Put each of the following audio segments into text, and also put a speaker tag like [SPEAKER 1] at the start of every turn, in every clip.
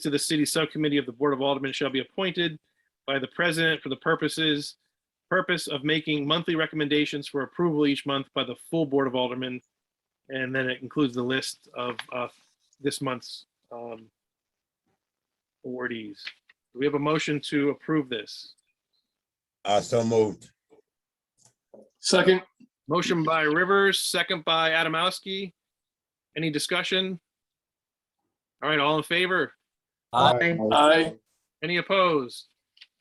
[SPEAKER 1] to the city subcommittee of the Board of Aldermen shall be appointed by the president for the purposes, purpose of making monthly recommendations for approval each month by the full Board of Aldermen. And then it includes the list of uh, this month's um, awardees. Do we have a motion to approve this?
[SPEAKER 2] Uh, so moved.
[SPEAKER 3] Second,
[SPEAKER 1] Motion by Rivers, second by Adamowski. Any discussion? All right, all in favor?
[SPEAKER 4] Aye.
[SPEAKER 3] aye.
[SPEAKER 1] Any opposed?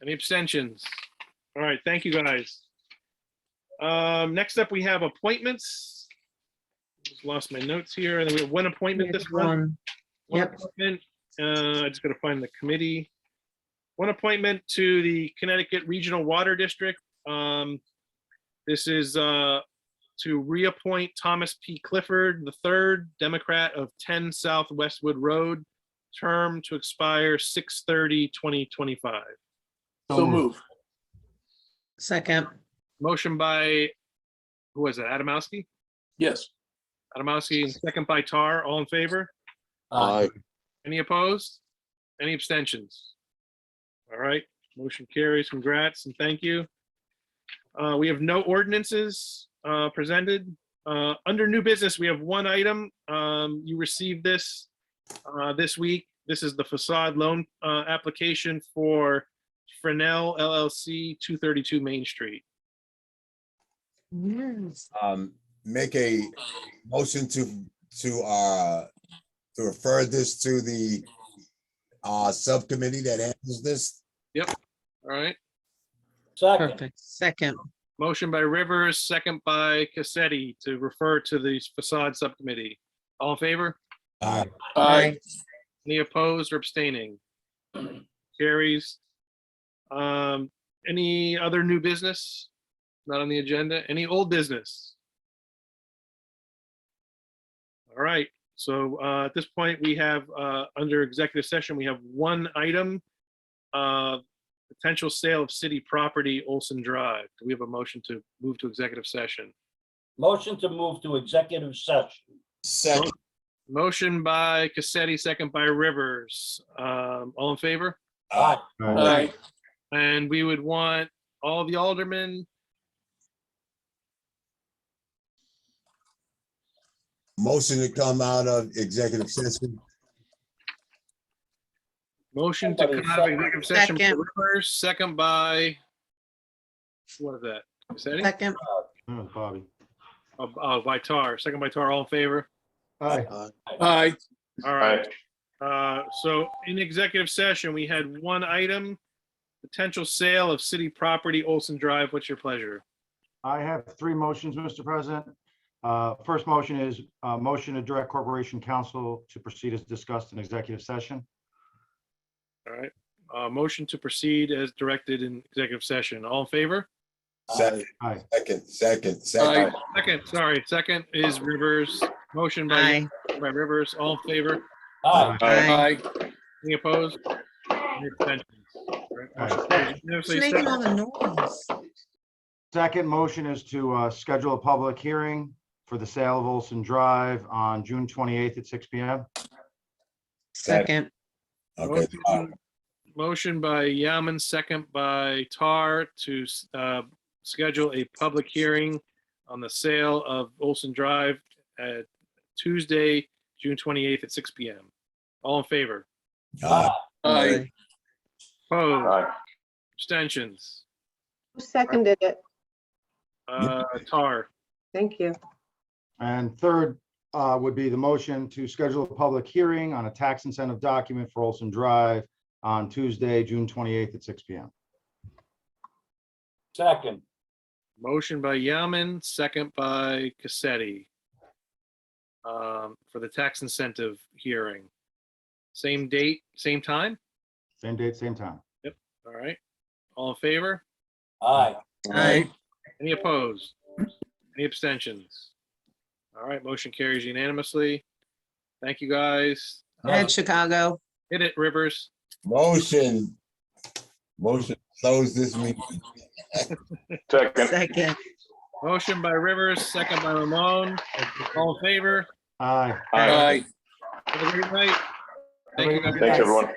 [SPEAKER 1] Any abstentions? All right, thank you, guys. Um, next up, we have appointments. Just Lost my notes here, and then we have one appointment this month.
[SPEAKER 4] One.
[SPEAKER 1] One
[SPEAKER 4] Yep.
[SPEAKER 1] appointment, uh, I just gotta find the committee. One appointment to the Connecticut Regional Water District. Um, this is, uh, to reappoint Thomas P. Clifford, the third Democrat of ten South Westwood Road, term to expire 2025.
[SPEAKER 3] So move.
[SPEAKER 4] Second.
[SPEAKER 1] Motion by, who was it, Adamowski?
[SPEAKER 3] Yes.
[SPEAKER 1] Adamowski, and second by Tar, all in favor?
[SPEAKER 2] Aye.
[SPEAKER 1] Any opposed? Any abstentions? All right, motion carries. Congrats and thank you. Uh, we have no ordinances, uh, presented. Uh, under new business, we have one item. Um, you received this, uh, this week. This is the facade loan, uh, application for Fresnel LLC, 232 Main Street.
[SPEAKER 4] Yes.
[SPEAKER 2] Um, make a motion to, to, uh, to refer this to the, uh, subcommittee that handles this.
[SPEAKER 1] All right,
[SPEAKER 4] Perfect. Second.
[SPEAKER 1] motion by Rivers, second by Cassetti to refer to the facade subcommittee. All in favor?
[SPEAKER 2] Uh,
[SPEAKER 3] Aye.
[SPEAKER 1] Any opposed or abstaining? Carries. Um, any other new business? Not on the agenda? Any old business? All right, so, uh, at this point, we have, uh, under executive session, we have one item. Uh, potential sale of city property Olson Drive. Do we have a motion to move to executive session?
[SPEAKER 5] Motion to move to executive session.
[SPEAKER 2] second,
[SPEAKER 1] Motion by Cassetti, second by Rivers. Um, all in favor?
[SPEAKER 2] uh,
[SPEAKER 3] Aye.
[SPEAKER 1] And we would want all the aldermen,
[SPEAKER 2] motion to come out of executive session.
[SPEAKER 1] motion to
[SPEAKER 5] Somebody
[SPEAKER 1] come out of executive session by
[SPEAKER 4] Second.
[SPEAKER 1] Rivers, second by, what is that? Is that it?
[SPEAKER 4] Second.
[SPEAKER 6] Oh, Bobby.
[SPEAKER 1] Oh, oh, by Tar, second by Tar, all in favor?
[SPEAKER 6] Hi.
[SPEAKER 3] Aye.
[SPEAKER 1] All right. Uh, so in executive session, we had one item, potential sale of city property Olson Drive. What's your pleasure?
[SPEAKER 6] I have three motions, Mr. President. Uh, First motion is uh motion to direct corporation counsel to proceed as discussed in executive session.
[SPEAKER 1] All right. Uh, motion to proceed as directed in executive session. All in favor?
[SPEAKER 2] Second,
[SPEAKER 6] Aye.
[SPEAKER 2] Uh, second, second, second.
[SPEAKER 1] Second, sorry, second is Rivers. Motion by,
[SPEAKER 4] Aye.
[SPEAKER 1] by Rivers, all in favor?
[SPEAKER 5] Aye.
[SPEAKER 4] Aye.
[SPEAKER 3] Aye.
[SPEAKER 1] Any opposed? Any abstentions? All right, motion carries
[SPEAKER 4] It's
[SPEAKER 1] unanimously.
[SPEAKER 4] making all
[SPEAKER 1] Second-
[SPEAKER 4] the noise.
[SPEAKER 6] Second motion is to uh, schedule a public hearing for the sale of Olson Drive on June 28th at 6 PM.
[SPEAKER 4] Second.
[SPEAKER 2] Okay, uh,
[SPEAKER 1] Motion by Yaman, second by Tar to uh, schedule a public hearing on the sale of Olson Drive at Tuesday, June 28th at 6 PM. All in favor?
[SPEAKER 2] uh,
[SPEAKER 3] Aye.
[SPEAKER 1] Opposed? Abstentions?
[SPEAKER 7] Who seconded it?
[SPEAKER 1] Uh, Tar,
[SPEAKER 7] Thank you.
[SPEAKER 6] And third uh, would be the motion to schedule a public hearing on a tax incentive document for Olson Drive on Tuesday, June 28th at 6 PM.
[SPEAKER 5] Second.
[SPEAKER 1] motion by Yaman, second by Cassetti um, for the tax incentive hearing. Same date, same time?
[SPEAKER 6] Same date, same time.
[SPEAKER 1] All right. All in favor?
[SPEAKER 5] Aye.
[SPEAKER 4] Aye.
[SPEAKER 1] Any opposed? Any abstentions? All right, motion carries unanimously. Thank you, guys. Uh,
[SPEAKER 4] Ed Chicago.
[SPEAKER 1] Hit it, Rivers.
[SPEAKER 2] motion. Motion to close this meeting.
[SPEAKER 4] Second.
[SPEAKER 1] Motion by Rivers, second by Ramon. All in favor?
[SPEAKER 6] Aye.
[SPEAKER 3] Aye.
[SPEAKER 1] Have a great night. Thank
[SPEAKER 6] Have a
[SPEAKER 1] you,
[SPEAKER 6] good
[SPEAKER 1] guys.
[SPEAKER 6] night.
[SPEAKER 4] everyone.